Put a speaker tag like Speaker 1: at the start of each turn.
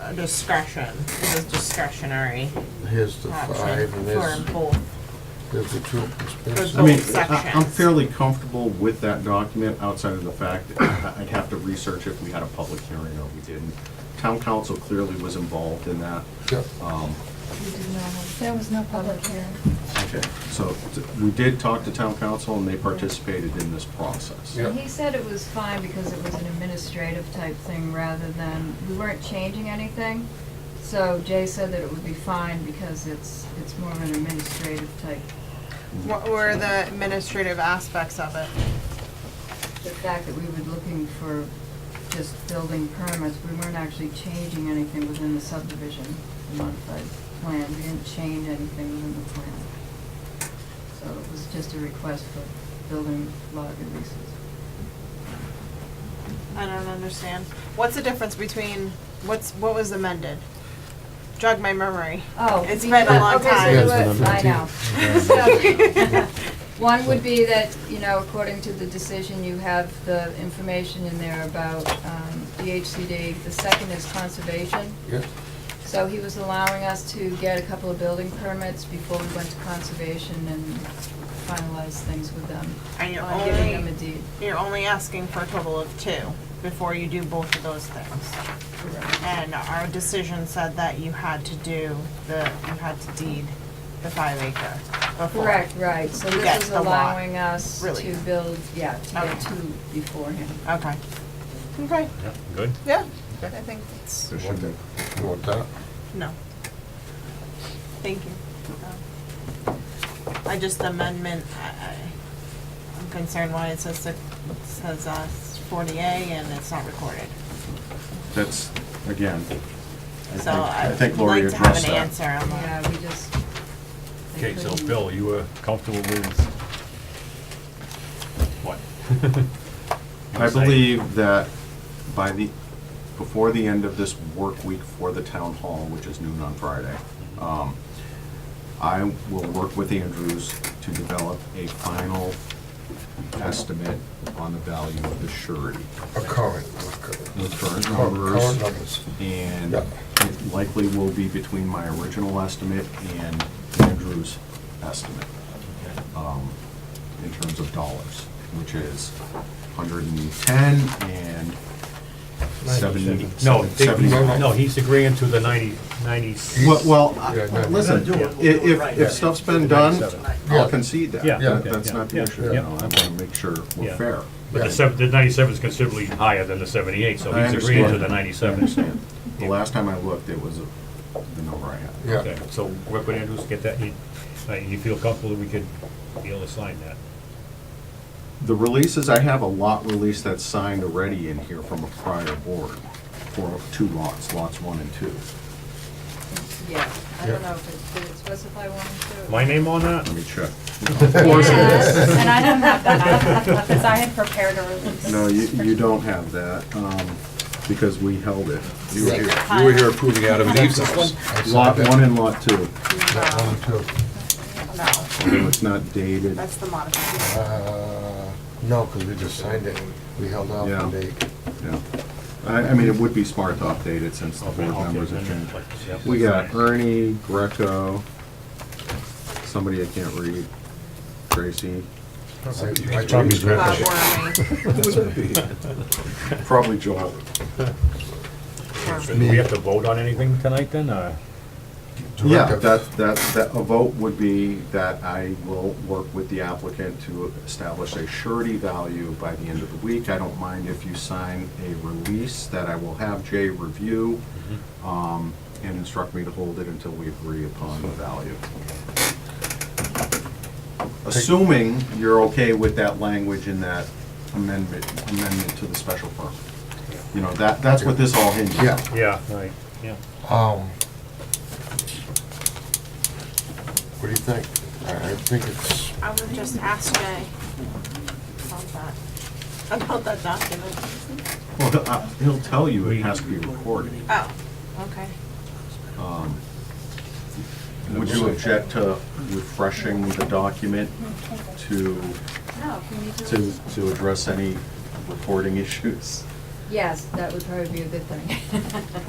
Speaker 1: a discretion, this is discretionary
Speaker 2: Here's the
Speaker 1: option
Speaker 2: five, and
Speaker 1: for
Speaker 2: there's,
Speaker 1: both.
Speaker 2: there's the two.
Speaker 1: For
Speaker 2: expenses.
Speaker 3: I mean,
Speaker 1: Both
Speaker 3: I- I'm
Speaker 1: sections.
Speaker 3: fairly comfortable with that document outside of the fact that I- I'd have to research if we had a public hearing or we didn't. Town council clearly was involved in that.
Speaker 2: Yep.
Speaker 3: Um,
Speaker 4: There was no public hearing.
Speaker 3: Okay, so t- we did talk to town council and they participated in this process.
Speaker 2: Yeah.
Speaker 5: He said it was fine because it was an administrative type thing rather than, we weren't changing anything. So Jay said that it would be fine because it's, it's more of an administrative type.
Speaker 6: What were the administrative aspects of it?
Speaker 5: The fact that we were looking for just building permits, we weren't actually changing anything within the subdivision, the modified plan. We didn't change anything within the plan. So it was just a request for building lot releases.
Speaker 6: I don't understand. What's the difference between, what's, what was amended? Jog my memory.
Speaker 5: Oh.
Speaker 6: It's been a long
Speaker 5: okay, so
Speaker 6: time.
Speaker 2: Yeah,
Speaker 5: you
Speaker 2: it's been
Speaker 5: were-
Speaker 2: a
Speaker 5: I know. So, One would be that, you know, according to the decision, you have the information in there about um, DHCD. The second is conservation.
Speaker 2: Yeah,
Speaker 5: So he was allowing us to get a couple of building permits before we went to conservation and finalized things with them.
Speaker 6: And you're
Speaker 5: on Giving them
Speaker 6: only-
Speaker 5: a deed.
Speaker 6: You're only asking for a total of two before you do both of those things. And our decision said that you had to do the, you had to deed the five acre before.
Speaker 5: Correct, right. So
Speaker 6: You get
Speaker 5: this is
Speaker 6: the lot,
Speaker 5: allowing us
Speaker 6: really.
Speaker 5: to build, yeah, to
Speaker 6: Okay.
Speaker 5: get two beforehand.
Speaker 6: Okay. Okay,
Speaker 7: Yeah, good.
Speaker 6: yeah, I think it's,
Speaker 2: you want that? You want that?
Speaker 6: no. Thank you. Um, I just amendment, I, I, I'm concerned why it says, it says uh, 40A and it's not recorded.
Speaker 3: That's, again, I
Speaker 6: So
Speaker 3: think- I
Speaker 6: I'd
Speaker 3: think Lori
Speaker 6: like to have
Speaker 3: addressed
Speaker 6: an answer
Speaker 3: that.
Speaker 6: on that.
Speaker 5: Yeah, we just. I
Speaker 7: Okay, so
Speaker 5: couldn't-
Speaker 7: Bill, you were comfortable with what? You
Speaker 3: I
Speaker 7: were saying?
Speaker 3: believe that by the, before the end of this work week for the town hall, which is noon on Friday, um, I will work with Andrews to develop a final estimate on the value of the surety.
Speaker 2: A current. a
Speaker 3: The
Speaker 2: current-
Speaker 3: current
Speaker 2: Current
Speaker 3: numbers,
Speaker 2: numbers.
Speaker 3: and
Speaker 2: Yeah.
Speaker 3: it likely will be between my original estimate and Andrew's estimate, um, in terms of dollars, which is 110 and 70.
Speaker 7: No, they-
Speaker 3: 70.
Speaker 7: no, he's agreeing to the ninety, ninety.
Speaker 3: Well, well, I-
Speaker 2: Yeah, no,
Speaker 3: listen,
Speaker 2: no,
Speaker 3: i- if, if stuff's been done, I'll
Speaker 2: Yeah.
Speaker 3: concede that.
Speaker 7: Yeah,
Speaker 3: That-
Speaker 2: yeah,
Speaker 3: That's not the
Speaker 7: yeah,
Speaker 3: issue,
Speaker 7: yeah.
Speaker 3: you know, I want to make sure we're
Speaker 7: Yeah.
Speaker 3: fair.
Speaker 7: But the seven, the ninety-seven's considerably higher than the seventy-eight, so
Speaker 3: I
Speaker 7: he's agreeing to
Speaker 3: understand.
Speaker 7: the
Speaker 3: I
Speaker 7: ninety-seven.
Speaker 3: understand. The last time I looked, it was a- the number I had.
Speaker 2: Yeah,
Speaker 7: Okay, so work with Andrews, get that, you, uh, you feel comfortable that we could be able to sign that?
Speaker 3: The releases, I have a lot release that's signed already in here from a prior board for two lots, lots one and two.
Speaker 5: Yeah, I
Speaker 2: Yeah.
Speaker 5: don't know if it, did it specify one or two?
Speaker 7: My name on that?
Speaker 3: Let me check.
Speaker 4: Yes, And I don't have that, because I had prepared a release.
Speaker 3: No, you, you don't have that, um, because we held it.
Speaker 2: you were here.
Speaker 6: You were here
Speaker 8: approving Adam and Eve's house.
Speaker 2: I signed
Speaker 3: Lot
Speaker 2: that.
Speaker 3: one and lot two,
Speaker 2: That one too.
Speaker 6: No,
Speaker 3: although it's not dated.
Speaker 6: that's the modification.
Speaker 2: Uh, No, because we just signed it, we held off
Speaker 3: Yeah.
Speaker 2: on date.
Speaker 3: Yeah. I, I mean, it would be smart to update it since the board members have changed. We got Ernie, Greco, somebody I can't read, Gracie,
Speaker 2: I- I
Speaker 7: Probably
Speaker 2: changed
Speaker 7: scratch
Speaker 2: that.
Speaker 6: Bob Wormy.
Speaker 3: probably Joel.
Speaker 7: Do we have to vote on anything tonight then, or?
Speaker 3: Yeah,
Speaker 2: Directive.
Speaker 3: that, that, that, a vote would be that I will work with the applicant to establish a surety value by the end of the week. I don't mind if you sign a release that I will have Jay review, um, and instruct me to hold it until we agree upon the value. Assuming you're okay with that language in that amendment, amendment to the special permit. You know, that, that's what this all hinges on.
Speaker 2: Yeah.
Speaker 7: Yeah, right, yeah.
Speaker 2: Um, What do you think? I I think it's,
Speaker 6: I would just ask Jay about that, about that document.
Speaker 3: Well, he'll- uh, he'll tell you it has to be recorded.
Speaker 6: Oh, okay.
Speaker 3: Would you object to refreshing the document to,
Speaker 5: No, can you do it?
Speaker 3: to, to address any recording issues?
Speaker 5: Yes, that would probably be a good thing.